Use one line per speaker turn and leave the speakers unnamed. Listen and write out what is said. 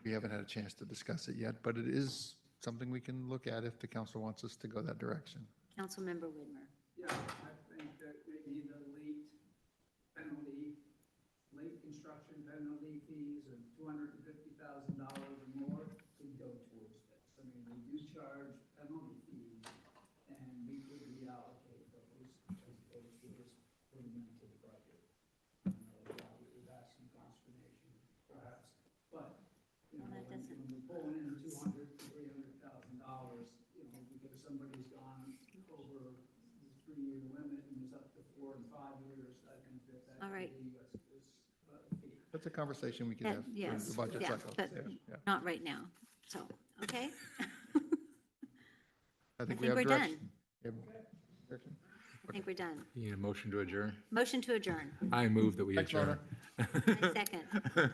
we haven't had a chance to discuss it yet, but it is something we can look at if the council wants us to go that direction.
Councilmember Widmer.
Yeah, I think that maybe the late penalty, late construction penalty fees of two hundred and fifty thousand dollars or more could go towards this. I mean, we do charge penalty fees, and we could reallocate those, as those fees were meant to the budget. I know that would have some consternation, perhaps, but, you know,
Well, that
when
doesn't-
when we're pulling in two hundred, three hundred thousand dollars, you know, because somebody's gone over the three-year limit and is up to four and five years, I think that that
All right.
could be a, is a uh, fee.
That's a conversation we can
That-
have during
Yes,
the budget
yeah,
cycle.
but
Yeah, yeah.
not right now. So,
I
okay?
think
think
we have
we're done.
direction. We have direction.
I think we're done.
You need a motion to adjourn?
Motion to adjourn.
I move that we
Thanks, Mona.
adjourn.
I Second.